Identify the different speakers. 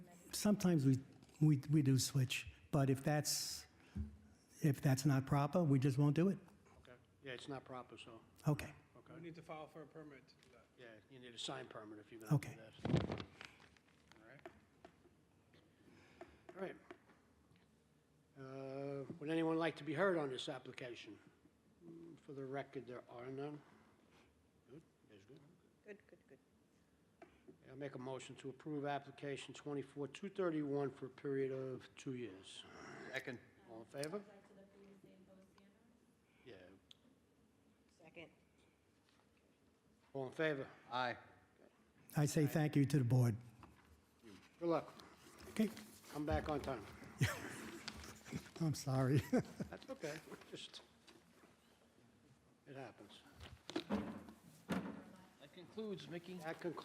Speaker 1: sometimes we, we, we do switch, but if that's, if that's not proper, we just won't do it.
Speaker 2: Okay. Yeah, it's not proper, so,
Speaker 1: Okay.
Speaker 3: We
Speaker 2: okay.
Speaker 3: need to file for a permit to do that.
Speaker 2: Yeah, you need a sign permit if you're going to do
Speaker 1: Okay.
Speaker 2: that. All right. All right. Uh, Would anyone like to be heard on this application? Mm, For the record, there are none. Good, that's good.
Speaker 4: Good, good, good.
Speaker 2: I'll make a motion to approve application 24-231 for a period of two years.
Speaker 5: Second.
Speaker 2: All in favor?
Speaker 6: Back to the previous name, Bo Sanders?
Speaker 2: Yeah.
Speaker 4: Second.
Speaker 2: All in favor?
Speaker 5: Aye.
Speaker 1: I say thank you to the board.
Speaker 2: Good luck.
Speaker 1: Okay,
Speaker 2: Come back on time.
Speaker 1: I'm sorry.
Speaker 2: That's okay, just, it happens.
Speaker 5: That concludes, Mickey.
Speaker 2: That concludes